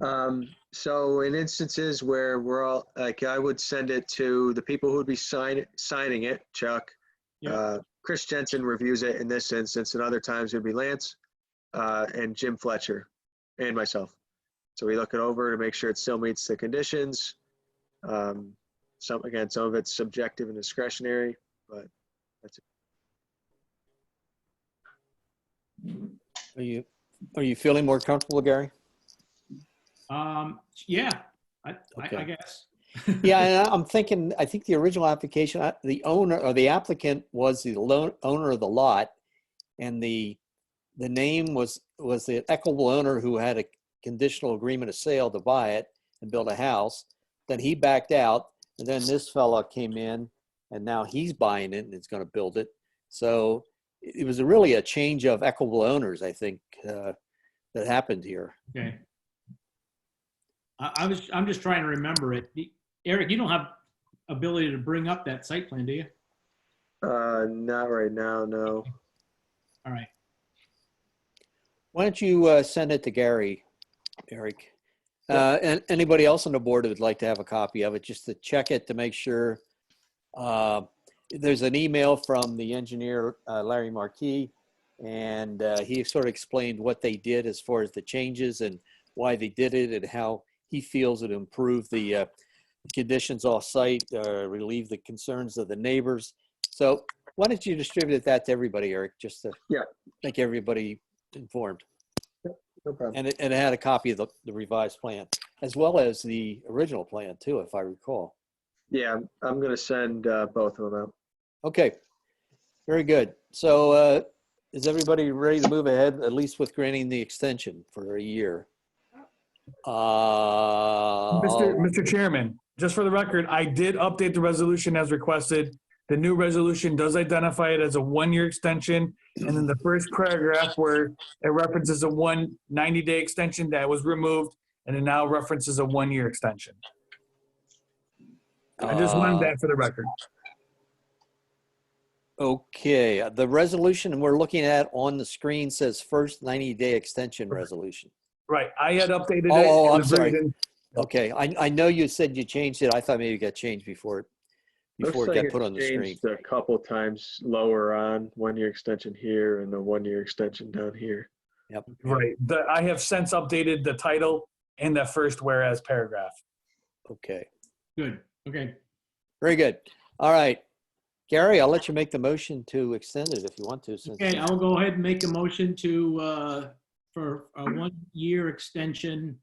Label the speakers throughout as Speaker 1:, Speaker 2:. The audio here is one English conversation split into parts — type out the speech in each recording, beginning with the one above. Speaker 1: Um, so in instances where we're all, like, I would send it to the people who'd be sign, signing it, Chuck.
Speaker 2: Yeah.
Speaker 1: Uh, Chris Jensen reviews it in this instance, and other times it'd be Lance, uh, and Jim Fletcher, and myself. So we look it over to make sure it still meets the conditions. Um, some, again, some of it's subjective and discretionary, but that's it.
Speaker 3: Are you, are you feeling more comfortable, Gary?
Speaker 2: Um, yeah, I, I, I
Speaker 3: Okay.
Speaker 2: guess.
Speaker 3: Yeah, and I- I'm thinking, I think the original application, I- the owner or the applicant was the lo- owner of the lot. And the, the name was, was the equitable owner who had a conditional agreement of sale to buy it and build a house. Then he backed out and then this fella came in and now he's buying it and is going to build it. So it it was really a change of equitable owners, I think, uh, that happened here.
Speaker 2: Okay. I, I was, I'm just trying to remember it. The- Eric, you don't have ability to bring up that site plan, do you?
Speaker 1: Uh, not right now, no.
Speaker 2: All right.
Speaker 3: Why don't you uh, send it to Gary, Eric? Uh, and anybody else on the board who would like to have a copy of it, just to check it to make sure. Uh, there's an email from the engineer, uh, Larry Marquis, and uh, he sort of explained what they did as far as the changes and why they did it and how he feels it improved the uh, conditions off site, uh, relieve the concerns of the neighbors. So why don't you distribute that to everybody, Eric, just to
Speaker 1: Yeah.
Speaker 3: make everybody informed?
Speaker 1: No problem.
Speaker 3: And it, and it had a copy of the, the revised plan, as well as the original plan too, if I recall.
Speaker 1: Yeah, I'm- I'm gonna send uh, both of them out.
Speaker 3: Okay, very good. So, uh, is everybody ready to move ahead, at least with granting the extension for a year? Uh,
Speaker 4: Mr. Mr. Chairman, just for the record, I did update the resolution as requested. The new resolution does identify it as a one-year extension. And then the first paragraph where it references a one 90-day extension that was removed and it now references a one-year extension. I just
Speaker 3: Ah.
Speaker 4: wanted that for the record.
Speaker 3: uh, Okay, the resolution we're looking at on the screen says first 90-day extension resolution.
Speaker 4: Right, I had updated it.
Speaker 3: Oh,
Speaker 4: in
Speaker 3: I'm
Speaker 4: the
Speaker 3: sorry.
Speaker 4: version-
Speaker 3: Okay, I, I know you said you changed it. I thought maybe it got changed before, it before
Speaker 1: Looks
Speaker 3: it
Speaker 1: like
Speaker 3: got put
Speaker 1: it's
Speaker 3: on the screen.
Speaker 1: changed A couple times lower on, one-year extension here and the one-year extension down here.
Speaker 4: Right, The- I have since updated the title and that first whereas paragraph.
Speaker 3: Okay.
Speaker 2: Good. Okay.
Speaker 3: Very good. All right. Gary, I'll let you make the motion to extend it if you want to. since-
Speaker 2: Okay, I'll go ahead and make a motion to, uh, for a one-year extension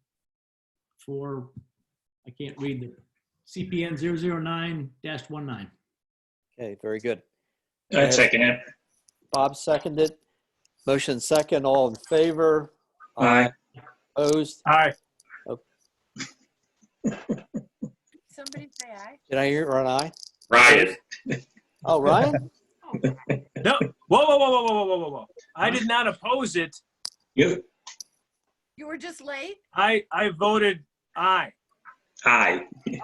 Speaker 2: for, I can't read the CPN 009-19.
Speaker 3: Okay, very good.
Speaker 5: I'd second it.
Speaker 3: Bob seconded. Motion second, all in favor?
Speaker 5: Aye.
Speaker 3: Opposed?
Speaker 4: All right,
Speaker 6: Somebody say aye.
Speaker 3: Did I hear an aye?
Speaker 5: Ryan.
Speaker 3: Oh, Ryan?
Speaker 7: No, whoa, whoa, whoa, whoa, whoa, whoa, whoa, whoa. I did not oppose it.
Speaker 5: You.
Speaker 6: You were just late?
Speaker 7: I, I voted aye.
Speaker 5: Aye.
Speaker 6: Okay.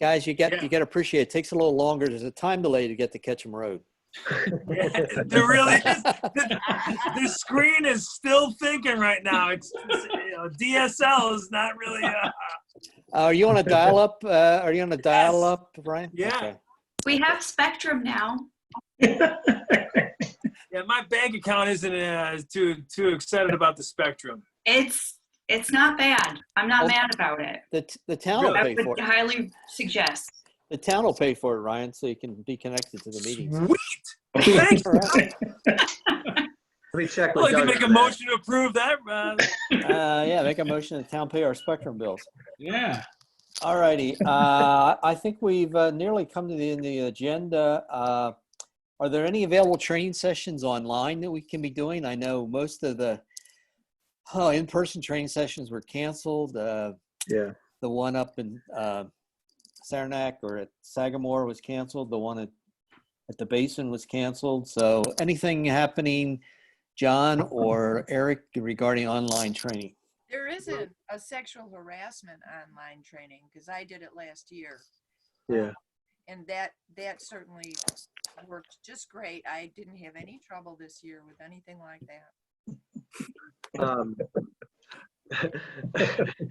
Speaker 3: Guys, you get,
Speaker 7: Yeah.
Speaker 3: you get to appreciate, it takes a little longer. There's a time delay to get to Ketchum Road.
Speaker 7: They're
Speaker 4: Oh,
Speaker 7: really, the, the screen is still thinking right now. It's, it's, you know, DSL is not really, uh,
Speaker 3: Are you on a dial-up? uh, Are you on a dial-up, Ryan?
Speaker 7: Yeah.
Speaker 3: Okay.
Speaker 8: We have Spectrum now.
Speaker 7: yeah, my bank account isn't uh, too, too excited about the spectrum.
Speaker 8: It's it's not bad. I'm not
Speaker 3: Oh.
Speaker 8: mad about it.
Speaker 3: The, t- the town will
Speaker 8: I
Speaker 3: pay for
Speaker 8: would
Speaker 3: it.
Speaker 8: highly suggest.
Speaker 3: The town will pay for it, Ryan, so you can be connected to the meetings.
Speaker 7: Sweet. Thank
Speaker 3: All right.
Speaker 1: Let me check
Speaker 7: I'd like to
Speaker 1: with Doug.
Speaker 7: Oh, make a
Speaker 1: on that.
Speaker 7: motion to approve that. Uh,
Speaker 3: Uh, yeah, make a motion to town pay our spectrum bills.
Speaker 2: Yeah.
Speaker 3: All righty, uh, I think we've uh, nearly come to the end of the agenda. Uh, are there any available training sessions online that we can be doing? I know most of the oh, in-person training sessions were canceled. Uh,
Speaker 1: Yeah,
Speaker 3: the one up in uh, Saranac or at Sagamore was canceled. The one at, at the Basin was canceled. So anything happening, John or Eric, regarding online training?
Speaker 6: There isn't a sexual harassment online training because I did it last year.
Speaker 1: yeah.
Speaker 6: And that, that certainly worked just great. I didn't have any trouble this year with anything like that.
Speaker 1: Um,